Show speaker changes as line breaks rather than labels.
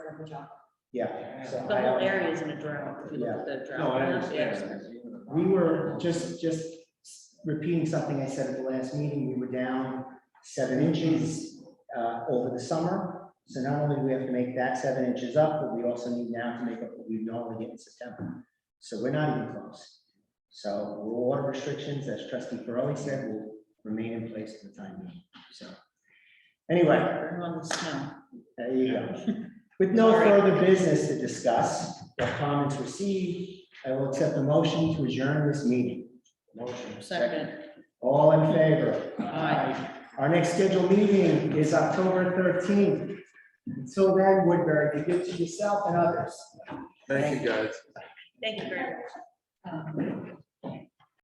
for John.
yeah. so
The
I
whole
don't-
area is in a drought, if you look at the drought.
No, I
Yeah.
understand.
We were just, just repeating something I said at the last meeting, we were down seven inches uh, over the summer. So not only do we have to make that seven inches up, but we also need now to make up what we normally get in September. So we're not even close. So water restrictions, as trustee Farrelly said, will remain in place for the time being, so. Anyway,
Burn on the snow.
there you go. With no further business to discuss, the comments received, I will accept the motion to adjourn this meeting. Motion.
Second,
All in favor?
Aye.
Our next scheduled meeting is October thirteenth. Until then, Woodbury, be good to yourself and others.
Thank you, guys.
thank you very much.
Um,